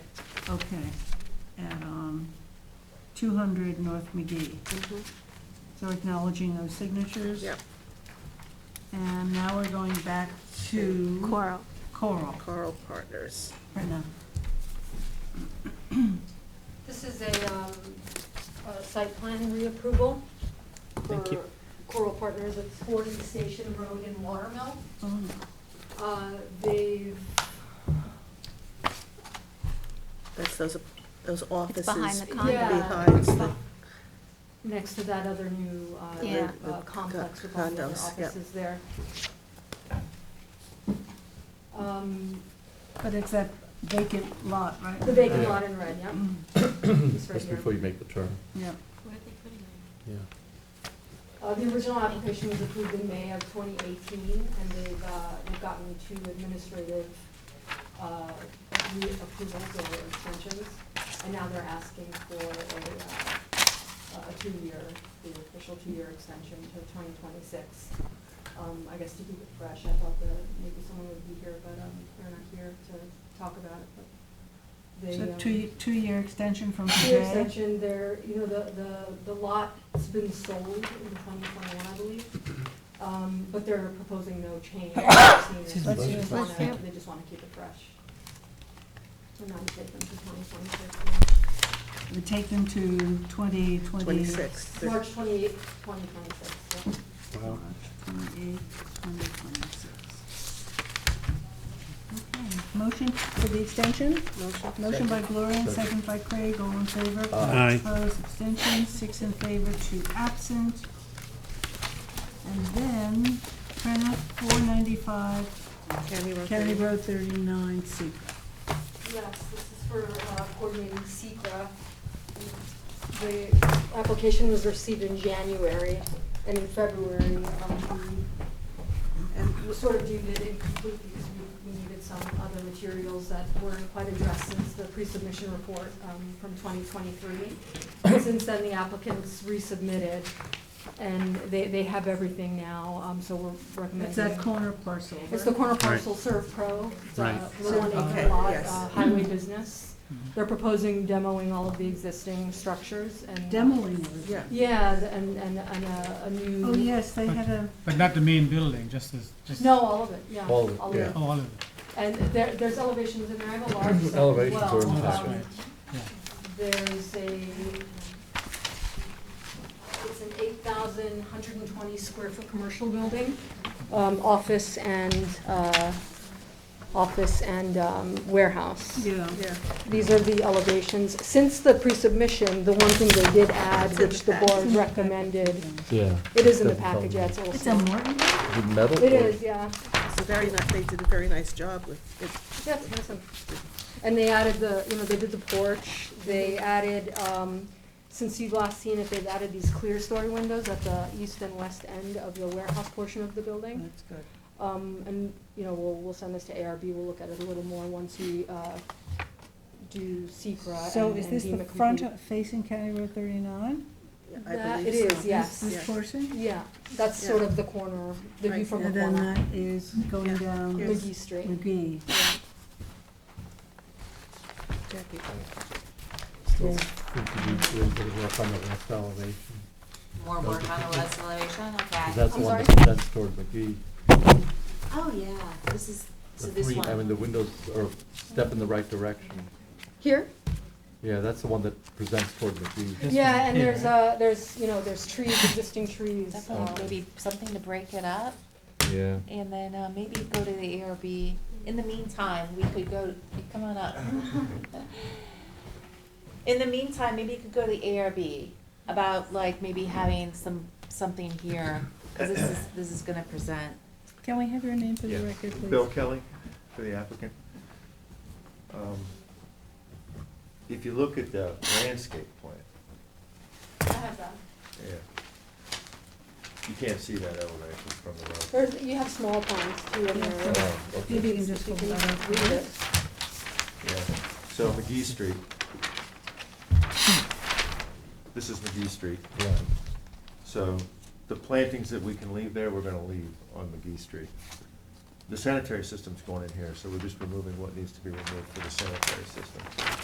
Okay, at, um, two hundred North McGee. Mm-hmm. So acknowledging those signatures. Yep. And now we're going back to Coral. Coral, Carl Partners. Brenna. This is a, um, a site plan reapproval for Thank you. Coral Partners at Forty Station Road in Watermill. Oh, Uh, they've, That's those, those offices. behind the condo. Yeah. Behind the, next to that other new, uh, Yeah. uh, complex with all the other Condos, yep. offices there. Um, But it's that vacant lot, right? Mm-hmm. the vacant lot in red, yeah. It's right Just here. before you make the turn, Yep. yeah. Uh, the original application was approved in May of twenty eighteen, and they've, uh, they've gotten two administrative, uh, reapprovals or extensions, and now they're asking for a, uh, a two-year, the official two-year extension to twenty twenty-six. Um, I guess to keep it fresh, I thought that maybe someone would be here, but, um, they're not here to talk about it, but they, So um, two, two-year extension from Your today? extension there, you know, the, the, the lot's been sold in twenty twenty-one, I believe. Um, but they're proposing no change. Excuse me. They Let's hear it. just wanna, Let's hear it. they just wanna keep it fresh. So now we take them to twenty twenty-six, We take them to twenty, twenty. twenty-six. thir- March twenty-eighth, twenty twenty-six, yeah. Wow. March twenty-eighth, twenty twenty-six. Okay, motion for the extension? Motion? Motion by Gloria, and Second. second by Craig, all in favor? Aye. Opposed, abstentions, six in favor, two absent. And then, Prentice, four ninety-five, County Road County thirty. Road thirty-nine, Secra. Yes, this is for uh, coordinating SECR. The application was received in January, and in February, um, we- we sort of deemed it incomplete because we- we needed some other materials that weren't quite addressed since the pre-submission report um, from 2023. And Since then, the applicants resubmitted, and they they have everything now, um, so we're recommending. It's that corner parcel. It's the corner Right. parcel Serve Pro. It's a Right. Mm-hmm. little one Okay, acre lot, yes. uh, highway business. They're proposing demoing all of the existing structures and. uh, Demoing it. Yeah. Yeah, th- and, and, and uh, a, a new. Oh, yes, they had a, But not the main building, just this, just No, all of it, yeah. All of it, yeah. all of it. And there, there's elevations in there, I have a large set as well. Elevations are in the Um, packet. Yeah. There's a, it's an eight thousand, hundred and twenty square foot commercial building, um, office and, uh, office and, um, warehouse. yeah, Yeah, These are the elevations. Since the pre-submission, the one thing they did add, It's in which the the pack. board recommended, Yeah. it is in the package, yeah, it's it's a also. Morton? The metal? It or- is, yeah. it's a very nice, they did a very nice job with it. Yeah, it's nice. and- And they added the, you know, they did the porch, they added, um, since you've last seen it, they've added these clear story windows at the east and west end of the warehouse portion of the building. That's good. Um, and, you know, we'll, we'll send this to ARB, we'll look at it a little more once we, uh, do secra So and is and this deem the it front complete. facing County Road thirty-nine? Yeah, I That- believe it so. is, yes. This- Yeah. This portion? Yeah, that's Yeah. sort of the corner, the view Right, from the And then corner, that is going Yeah. down Here's- McGee Street. McGee. Jackie. Still think you need to do a little bit of work on the left elevation. More work on the west elevation, 'Cause okay. that's I'm the one sorry? that- That's toward McGee. Oh, yeah, this is, so The this three, I mean, the one. windows are step in the right direction. Here? Yeah, that's the one that presents toward McGee. This Yeah, one and here, there's, right? uh, there's, you know, there's trees, existing trees. Oh. um, Definitely maybe something to break it up, Yeah. and then uh, maybe go to the ARB. In the meantime, we could go, come on up. In the meantime, maybe you could go to the ARB about like maybe having some, something here, because this is, this is gonna present. Can we have your name for the Yeah. record, please? Bill Kelly, for the applicant. Um, If you look at the landscape plan, I have that. yeah, you can't see that elevation from the road. There's, you have small pines too in there. Oh, okay. Maybe you can just You hold can that up. read it. Yeah, so McGee Street. This is McGee Street. Yeah. So the plantings that we can leave there, we're gonna leave on McGee Street. The sanitary system's going in here, so we're just removing what needs to be removed for the sanitary system.